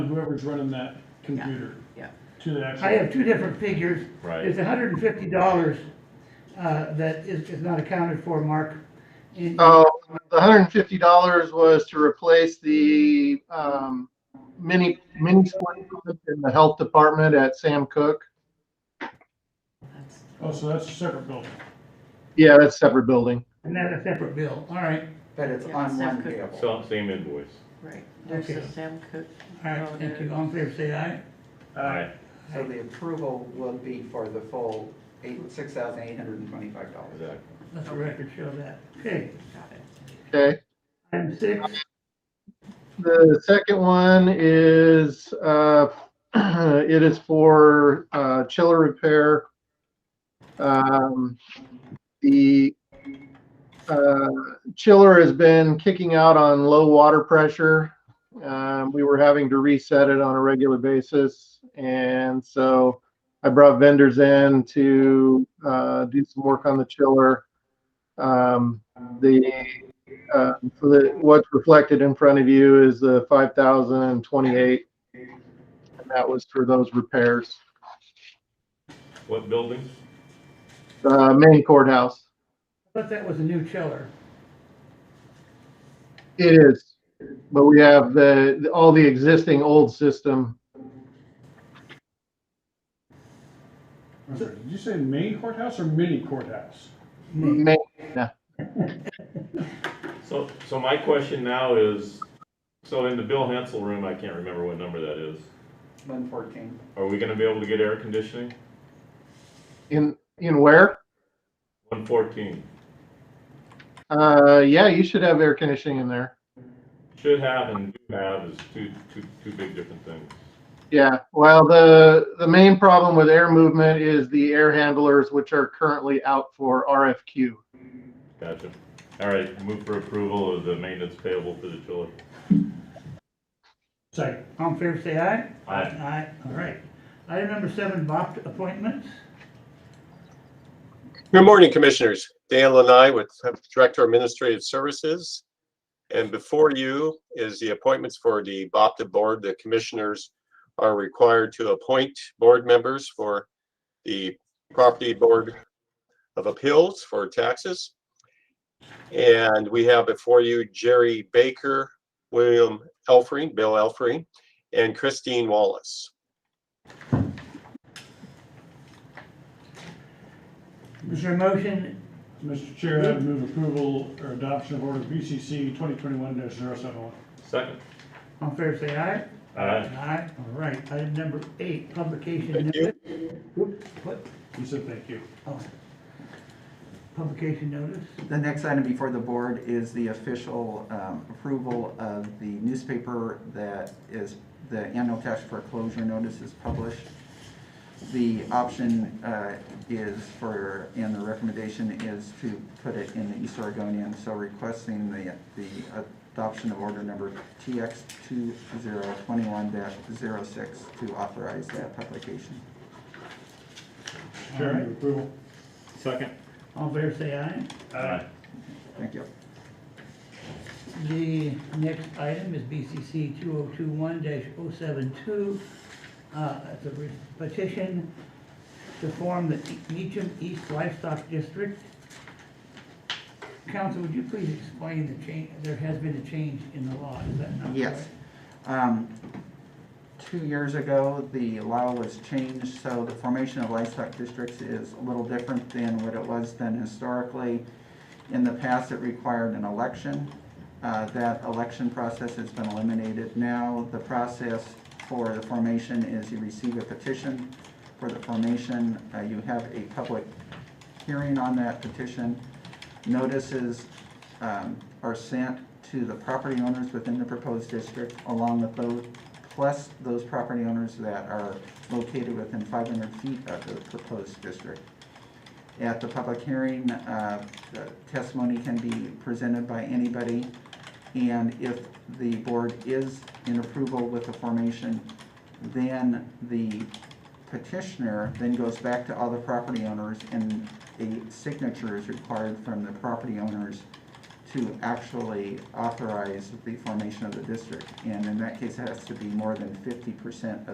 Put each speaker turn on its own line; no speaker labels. whoever's running that computer
yeah.
to the actual.
I have two different figures.
Right.
It's hundred and fifty dollars, uh, that is, is not accounted for, Mark. And-
Oh, the hundred and fifty dollars was to replace the, um, mini, mini split in the health department at Sam Cook.
That's-
Oh, so that's a separate building.
Yeah, that's a separate building.
And that's a separate bill, all right,
But it's
Yeah,
on
Sam
one
could-
bill.
So, same invoice.
Right, there's
Okay.
the Sam Cook.
all right,
Oh,
thank
there.
you, all in favor, say aye.
Aye.
So the approval will be for the full eight, six thousand eight hundred and twenty-five dollars.
Exactly.
Let the record show that, okay,
Got it.
Okay.
item six,
The second one is, uh, it is for, uh, chiller repair. Um, the, uh, chiller has been kicking out on low water pressure. Um, we were having to reset it on a regular basis. And so I brought vendors in to, uh, do some work on the chiller. Um, the, uh, so that what's reflected in front of you is the five thousand and twenty-eight. And that was for those repairs,
What building?
uh, main courthouse.
but that was a new chiller.
It is, but we have the, all the existing old system.
I'm sorry, Did you say main courthouse or mini courthouse?
Main-
So, so my question now is, so in the Bill Hansel room, I can't remember what number that is.
One fourteen.
Are we gonna be able to get air conditioning?
In, in where?
One fourteen.
Uh, yeah, you should have air conditioning in there.
Should have and do have is two, two, two big different things.
Yeah, well, the, the main problem with air movement is the air handlers, which are currently out for RFQ.
Gotcha. All right, move for approval of the maintenance payable for the chiller.
Second.
All in favor, say aye.
Aye.
Aye, all right. Item number seven, BOP appointments.
Good morning, Commissioners. Dan Lanai with Director of Administrative Services. And before you is the appointments for the BOPTA Board. The Commissioners are required to appoint board members for the Property Board of Appeals for taxes. And we have before you Jerry Baker, William Elfring, Bill Elfring, and Christine Wallace.
Is there a motion?
Mr. Chair, I would move approval or adoption of order BCC twenty twenty-one 71
Second.
All in favor, say aye.
Aye.
Aye, all right. Item number eight, publication
Thank
notice.
you.
Oops, what?
He said thank you.
Oh. Publication notice.
The next item before the board is the official um, approval of the newspaper that is, the annual cash foreclosure notice is published. The option uh, is for, and the recommendation is to put it in the East Oregonian, so requesting the, the adoption of order number TX 2021-06 to authorize that publication.
Chair, I move approval.
Second.
All in favor, say aye.
Aye.
Thank you.
The next item is BCC 2021-072. uh, It's a re- petition to form the E, Meacham East Livestock District. Council, would you please explain the change, there has been a change in the law, is that not correct?
Yes. Um, Two years ago, the law was changed, so the formation of livestock districts is a little different than what it was then historically. In the past, it required an election. Uh, That election process has been eliminated. Now, the process for the formation is you receive a petition for the formation. Uh, You have a public hearing on that petition. Notices um, are sent to the property owners within the proposed district along with those, plus those property owners that are located within 500 feet of the proposed district. At the public hearing, uh, the testimony can be presented by anybody. And if the board is in approval with the formation, then the petitioner then goes back to all the property owners and a signature is required from the property owners to actually authorize the formation of the district. And in that case, it has to be more than fifty percent of